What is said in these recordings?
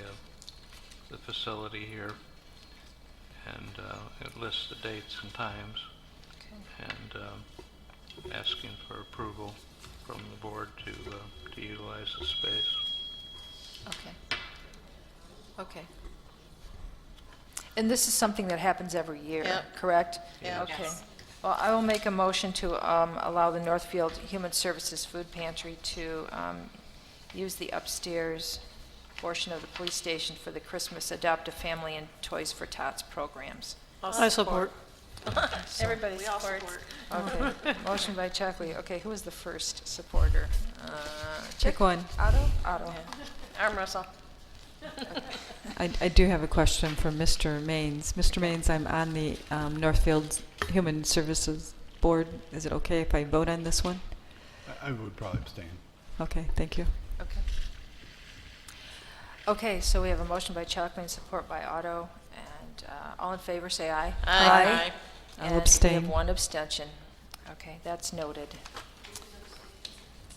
uh, the facility here, and uh, it lists the dates and times, Okay. and um, asking for approval from the board to uh, to utilize the space. Okay. Okay. And this is something that happens every year, Yep. correct? Yeah. Okay. Yes. Well, I will make a motion to um, allow the Northfield Human Services Food Pantry to um, use the upstairs portion of the police station for the Christmas Adopt a Family and Toys for Tots programs. I support. Everybody We all supports. support. Okay. Motion by Chockley. Okay, who was the first supporter? Uh, Pick one. Otto? Otto. Arm wrestle. I, I do have a question for Mr. Maines. Mr. Maines, I'm on the um, Northfield Human Services Board. Is it okay if I vote on this one? I- I would probably abstain. Okay, thank you. Okay. Okay, so we have a motion by Chalkley and support by Otto, and uh, all in favor, say aye. Aye. Aye. I'll And we abstain. have one abstention. Okay, that's noted.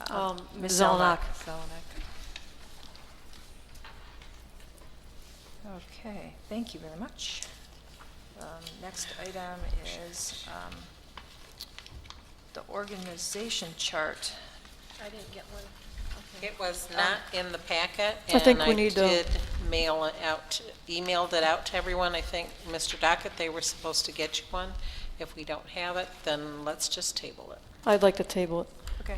Uh, Um, Ms. Zelenak. Zelenak. Okay, thank you very much. Um, Next item is um, the organization chart. I didn't get one. It was not in the packet, I think and we I need to- did mail it out, emailed it out to everyone. I think, Mr. Dockett, they were supposed to get you one. If we don't have it, then let's just table it. I'd like to table it. Okay.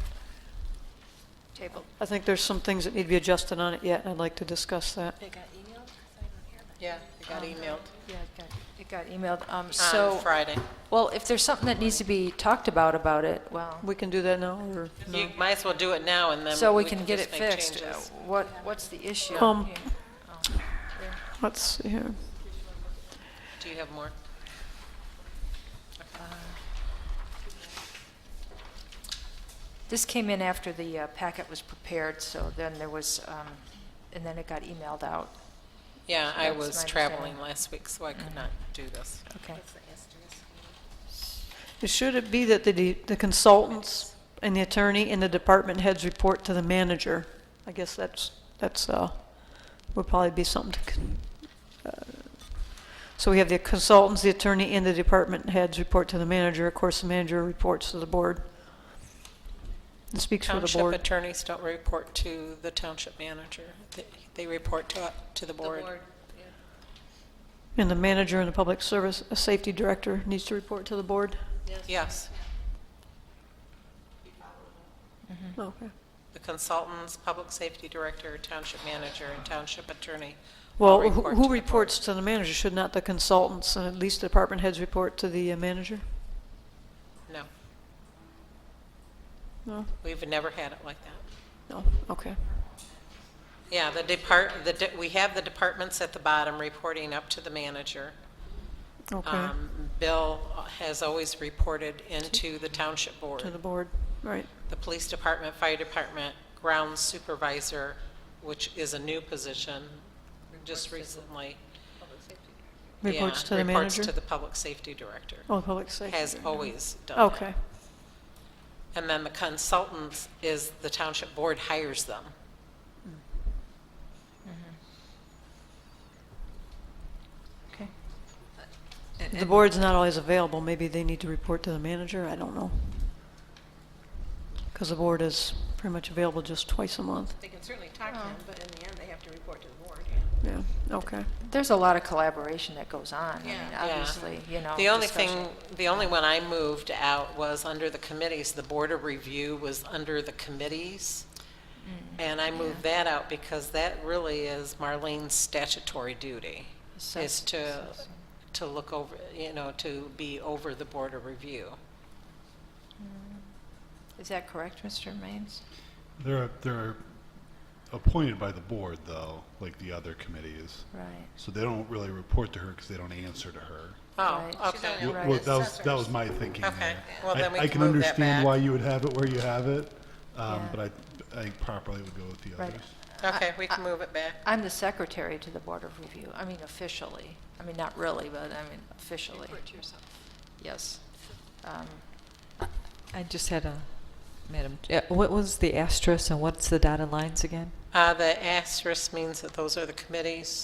Table. I think there's some things that need to be adjusted on it yet, and I'd like to discuss that. They got emailed? 'Cause I don't hear Yeah, it got emailed Yeah, it got, it got emailed. Um, So. on Friday. Well, if there's something that needs to be talked about, about it, well, We can do that now, or You no? might as well do it now, and then so we can get it just make fixed. changes. Uh, What, what's the issue Um, here? Oh, Let's see here. Do you have more? This came in after the uh, packet was prepared, so then there was, um, and then it got emailed out. Yeah, I That's was my traveling understanding. last week, so I could not do this. Okay. Should it be that the the consultants and the attorney and the department heads report to the manager? I guess that's, that's, uh, would probably be something to, con- uh, so we have the consultants, the attorney, and the department heads report to the manager. Of course, the manager reports to the board. It Speaks for the Township board. attorneys don't report to the township manager. They- They report to, to the board. And the manager and the public service, uh safety director needs to report to the board? Yes. Okay. The consultants, public safety director, township manager, and township attorney. all Well, who- report to the who board. reports to the manager? Should not the consultants and at least the department heads report to the uh, manager? No, No? we've never had it like that. No, okay. Yeah, the depart, the, de- we have the departments at the bottom reporting up to the manager. Okay, Um, Bill has always reported into the township board. to the board, right. the police department, fire department, ground supervisor, which is a new position just recently. Reports Yeah, to the manager? Reports to the public safety director, Oh, the public safety. has director. always done that. Okay, And then the consultants is the township board hires them. Okay. the board's not always available, maybe they need to report to the manager, I don't know. Because the board is pretty much available just twice a month, They can certainly talk to Oh. them, but in the end, they have to report to the board. yeah, okay. There's a lot of collaboration that goes on. I mean, Yeah. Yeah. obviously, you know. The only discussion. thing, the only one I moved out was under the committees, the board of review was under the committees. And I moved that out because that really is Marlene's statutory duty, is Assess- to, assess- to look over, you know, to be over the board of review. Is that correct, Mr. Maines? They're, they're appointed by the board, though, like the other committees. Right. So they don't really report to her because they don't answer to her. Oh, Right. okay. Well, Right. well, that was, that was my thinking Okay. there. Well, I- then we I can move that back. understand why you would have it where you have it, um, Yeah. but I, I think properly would go with the Right. others. Okay, we can move it back. I'm the secretary to the Board of Review. I mean officially. I mean, not really, but I mean officially. Yes. Um, I just had a, Madam, uh, what was the asterisk and what's the dotted lines again? Uh, the asterisk means that those are the committees.